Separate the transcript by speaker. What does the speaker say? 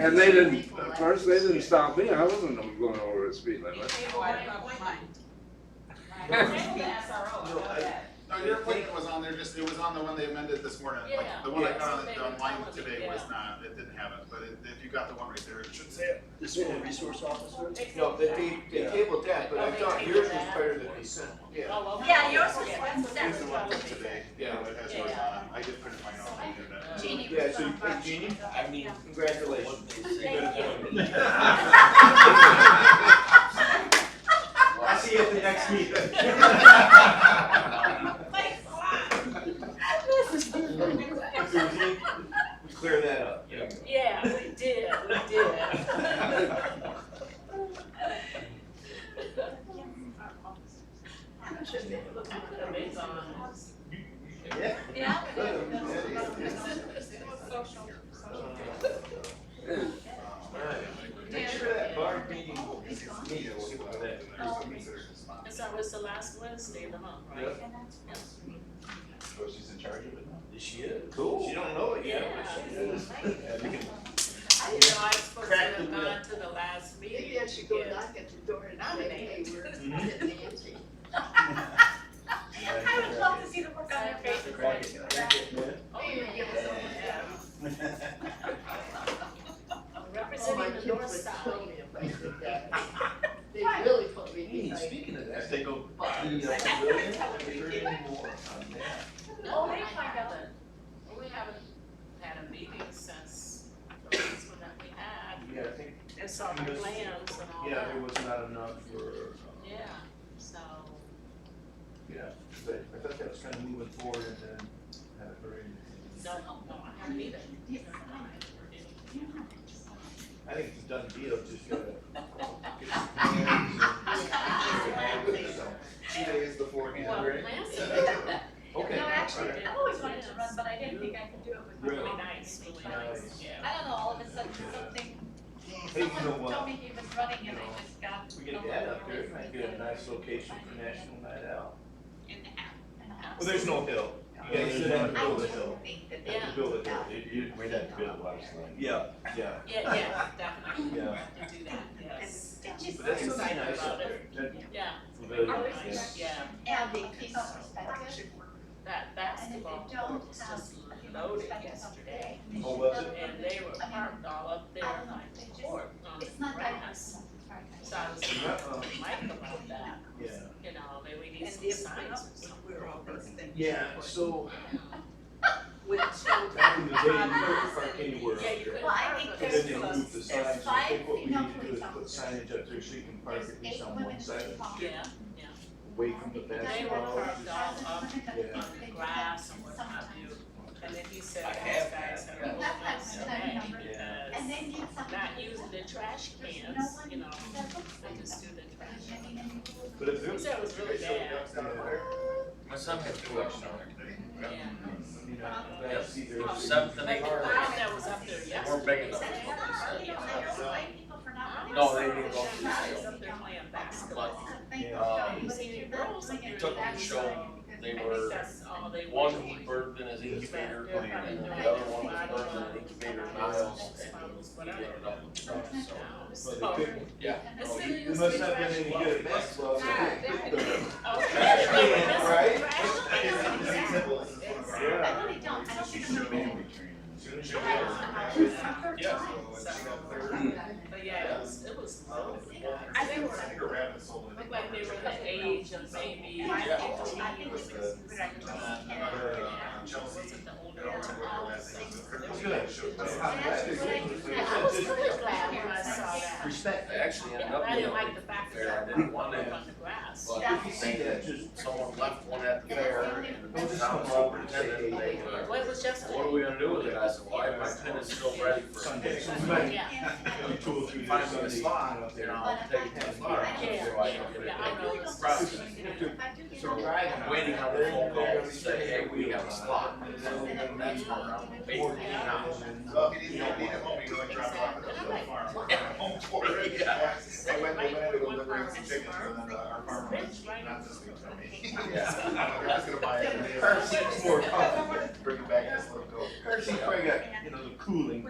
Speaker 1: And they didn't, at first, they didn't stop me, I wasn't going over the speed limit.
Speaker 2: No, your appointment was on there, just, it was on the one they amended this morning,
Speaker 3: Yeah.
Speaker 2: like, the one I
Speaker 3: Yeah.
Speaker 2: got on,
Speaker 3: They
Speaker 2: the-
Speaker 3: were
Speaker 2: online
Speaker 3: telling me,
Speaker 2: today
Speaker 3: yeah.
Speaker 2: was not, it didn't have it, but it- if you got the one right there, it should say it.
Speaker 4: The school resource officer?
Speaker 5: No, they, they, they tabled that, but I thought yours was better than they sent, yeah,
Speaker 3: Yeah, yours was
Speaker 2: It's the one from today,
Speaker 5: Yeah.
Speaker 2: yeah, it has yours on it, I did print mine off the internet.
Speaker 3: Jeannie
Speaker 5: yeah,
Speaker 3: was
Speaker 5: so you
Speaker 3: on
Speaker 5: put
Speaker 3: March.
Speaker 5: Jeannie, I mean, congratulations.
Speaker 3: Thank you.
Speaker 4: I'll see you at the next meeting.
Speaker 3: Thanks a lot.
Speaker 5: So we did- We clear that up. Yeah.
Speaker 3: Yeah, we did, we did. Yeah.
Speaker 2: Um,
Speaker 5: Make sure that bar meeting will be neat, we'll get to that.
Speaker 3: And so it's the last Wednesday of the month, right?
Speaker 2: So she's in charge of it now?
Speaker 5: She is. Cool. She don't know it yet, but she is.
Speaker 3: I didn't know I was supposed to
Speaker 5: Crack the
Speaker 3: have
Speaker 5: whip.
Speaker 3: gone to the last meeting.
Speaker 6: Maybe I should go knock at your door and nominate you.
Speaker 3: I would love to see the work on your faces.
Speaker 5: Crack it, crack it, yeah.
Speaker 3: Oh, yeah. Representing the north side.
Speaker 6: They really put me
Speaker 5: Hey,
Speaker 6: in like.
Speaker 5: speaking of that,
Speaker 2: As they go
Speaker 5: the, uh,
Speaker 2: by.
Speaker 5: pavilion, we heard any more on that?
Speaker 3: Oh, they find out that we haven't had a meeting since the last one that we had.
Speaker 5: Yeah, I think,
Speaker 3: And so our plans and all
Speaker 5: yeah,
Speaker 3: that.
Speaker 5: there was not enough for, uh,
Speaker 3: Yeah, so.
Speaker 5: yeah, but I thought that was kind of moving forward and then haven't heard anything.
Speaker 3: No, no, no, I haven't either.
Speaker 5: I think it's a done deal, just gotta get some plans and.
Speaker 2: Two days before the
Speaker 3: Well,
Speaker 2: hearing.
Speaker 3: plans.
Speaker 5: Okay.
Speaker 7: No, actually, I always wanted to run, but I didn't think I could do it with my
Speaker 5: Really?
Speaker 3: Really
Speaker 7: own
Speaker 3: nice,
Speaker 7: anything.
Speaker 3: really
Speaker 5: Nice.
Speaker 3: nice.
Speaker 7: I don't know, all of a sudden something,
Speaker 5: Hey, you know
Speaker 7: someone told
Speaker 5: what?
Speaker 7: me he was running and I just got.
Speaker 5: We get that up there, might get a nice location for National Night Out.
Speaker 7: In the app.
Speaker 5: Well, there's no hill. You gotta sit down and
Speaker 7: I
Speaker 5: build a
Speaker 7: just
Speaker 5: hill.
Speaker 7: think that
Speaker 5: You have
Speaker 7: they.
Speaker 5: to build a hill.
Speaker 8: You, you, we'd have to build a water slide.
Speaker 5: Yeah, yeah,
Speaker 3: Yeah, yeah, definitely.
Speaker 5: yeah.
Speaker 3: To do that, yes.
Speaker 7: It's just-
Speaker 5: But that's
Speaker 7: it's
Speaker 5: something
Speaker 7: like-
Speaker 5: nice up there. That
Speaker 3: Yeah,
Speaker 8: Pavilion,
Speaker 7: Ours
Speaker 8: yeah.
Speaker 7: is-
Speaker 3: yeah.
Speaker 7: And the piece
Speaker 6: Oh,
Speaker 7: of perspective should work.
Speaker 3: That
Speaker 7: And if
Speaker 3: basketball
Speaker 7: they
Speaker 3: court
Speaker 7: don't
Speaker 3: was
Speaker 7: have.
Speaker 3: just
Speaker 7: a human
Speaker 3: loaded
Speaker 7: perspective of the
Speaker 3: yesterday.
Speaker 7: day, they
Speaker 5: Oh,
Speaker 7: should
Speaker 5: was
Speaker 7: know
Speaker 5: it?
Speaker 3: And they were parked all up there like the court on the
Speaker 7: It's not that
Speaker 3: grass.
Speaker 7: personal.
Speaker 3: So I was
Speaker 5: Yeah, um,
Speaker 3: talking to Mike about that,
Speaker 5: Yeah,
Speaker 3: you know, maybe we need
Speaker 6: And
Speaker 3: some
Speaker 6: if
Speaker 3: signs or
Speaker 6: not, we're all those things.
Speaker 5: yeah, so
Speaker 6: With children.
Speaker 5: back in the day, you couldn't park anywhere up
Speaker 3: Yeah, you
Speaker 5: there.
Speaker 3: could-
Speaker 7: Well, I think
Speaker 5: And then
Speaker 7: there's
Speaker 5: they moved the
Speaker 7: close,
Speaker 5: signs,
Speaker 7: there's
Speaker 5: so I
Speaker 7: five
Speaker 5: think what we
Speaker 7: female
Speaker 5: need to do
Speaker 7: police
Speaker 5: is put
Speaker 7: officers.
Speaker 5: signage up there so you can park
Speaker 7: There's
Speaker 5: at
Speaker 7: eight
Speaker 5: least on
Speaker 7: women
Speaker 5: one
Speaker 7: in
Speaker 5: side,
Speaker 7: the hall.
Speaker 3: something. Yeah, yeah.
Speaker 5: away from the
Speaker 3: They were
Speaker 5: basketball.
Speaker 3: parked all up on the grass and what have you. And then he said,
Speaker 5: I
Speaker 3: those
Speaker 5: have
Speaker 3: guys
Speaker 5: that.
Speaker 3: are a little upset
Speaker 5: Yeah.
Speaker 7: And
Speaker 3: because
Speaker 7: then get something.
Speaker 3: not using the trash cans, you know,
Speaker 7: That looks
Speaker 3: they
Speaker 7: like
Speaker 3: just
Speaker 7: that.
Speaker 3: do the trash.
Speaker 7: I mean, and-
Speaker 5: But if there
Speaker 3: He
Speaker 5: was,
Speaker 3: said it was really bad.
Speaker 8: My son had two options on
Speaker 3: Yeah.
Speaker 5: you know, I see
Speaker 3: Oh,
Speaker 5: there's.
Speaker 8: something.
Speaker 3: Like the crowd that was up there
Speaker 8: there. We're big
Speaker 3: yesterday.
Speaker 8: enough.
Speaker 7: That's not, you know, I don't blame people for not.
Speaker 8: No, they didn't go.
Speaker 3: The crowd was up there playing basketball.
Speaker 7: Thank
Speaker 5: Yeah.
Speaker 7: God,
Speaker 3: Um,
Speaker 7: but if you're not doing it,
Speaker 8: Took them
Speaker 7: that's
Speaker 8: show.
Speaker 7: because
Speaker 8: They
Speaker 3: I
Speaker 8: were, uh,
Speaker 3: think that's all they
Speaker 8: one
Speaker 3: were
Speaker 8: he
Speaker 3: doing.
Speaker 8: birthed in his incubator, and then
Speaker 3: Probably
Speaker 8: the other
Speaker 3: doing
Speaker 8: one was
Speaker 3: body
Speaker 8: birthed in an
Speaker 3: models,
Speaker 8: incubator
Speaker 3: body
Speaker 8: miles, Oh,
Speaker 3: models,
Speaker 8: and
Speaker 3: models,
Speaker 8: he ended
Speaker 3: whatever.
Speaker 8: up with the so.
Speaker 5: But they couldn't,
Speaker 8: Yeah.
Speaker 3: It's
Speaker 5: oh,
Speaker 3: been
Speaker 5: you- you
Speaker 3: used
Speaker 5: must
Speaker 3: to
Speaker 5: not been
Speaker 3: trash.
Speaker 5: any good at basketball. so
Speaker 3: Ah,
Speaker 5: they picked
Speaker 3: they-
Speaker 5: them.
Speaker 3: Okay.
Speaker 5: Right?
Speaker 7: I
Speaker 5: Yeah.
Speaker 7: really don't, I don't think I'm gonna.
Speaker 5: Soon as you
Speaker 7: I
Speaker 5: get
Speaker 7: had
Speaker 5: it.
Speaker 7: some hours of her
Speaker 8: Yeah.
Speaker 7: time.
Speaker 3: But yeah, it was, it was low.
Speaker 2: I think Tiger Rabbit sold it.
Speaker 3: Looked like they were the age of maybe
Speaker 7: And I
Speaker 8: Yeah.
Speaker 7: think, I think it's.
Speaker 2: Uh, another, uh, Chelsea.
Speaker 3: Wasn't the older
Speaker 2: I don't remember her
Speaker 3: one.
Speaker 2: last name, but her-
Speaker 5: It's good. It's not bad. It's good.
Speaker 3: I was really glad when I saw that.
Speaker 5: Respect
Speaker 8: I
Speaker 5: that.
Speaker 8: actually ended
Speaker 3: Yeah,
Speaker 8: up
Speaker 3: I
Speaker 8: being
Speaker 3: didn't like the fact
Speaker 8: fair, I
Speaker 3: that
Speaker 8: didn't want
Speaker 3: it
Speaker 8: to,
Speaker 3: on the grass.
Speaker 8: but
Speaker 5: If you see that, just,
Speaker 8: someone left one at the fair, and
Speaker 5: don't just
Speaker 8: town
Speaker 5: come
Speaker 8: hall
Speaker 5: over and
Speaker 8: pretended
Speaker 5: say,
Speaker 8: they
Speaker 5: hey,
Speaker 8: were,
Speaker 3: Well, it was just.
Speaker 8: what are we gonna do with it? I said, why, my tent is still ready for.
Speaker 5: Sunday, so we might
Speaker 3: Yeah,
Speaker 5: do two or three
Speaker 8: Find
Speaker 5: days
Speaker 8: me a
Speaker 5: Sunday.
Speaker 8: spot
Speaker 5: up
Speaker 8: you
Speaker 5: there.
Speaker 8: know, I'll take it to the bar,
Speaker 3: yeah,
Speaker 8: so I don't get
Speaker 3: yeah,
Speaker 8: it.
Speaker 3: I know. it's-
Speaker 8: Probably.
Speaker 5: So
Speaker 8: I'm waiting on the phone call to say, hey, we have a slot. That's where I'm
Speaker 5: Or,
Speaker 8: waiting now.
Speaker 2: Well, if you need help, you need help, we go and drop it off at the little farm. Home for it.
Speaker 8: Yeah.
Speaker 2: I went, I went out to go deliver some chickens, and then uh, our farmer was not this week for me.
Speaker 8: Yeah.
Speaker 2: I'm just gonna buy it.
Speaker 5: Her seat's more comfortable.
Speaker 2: Bring it back as a little goat.
Speaker 5: Her seat's probably got, you know, the cooling.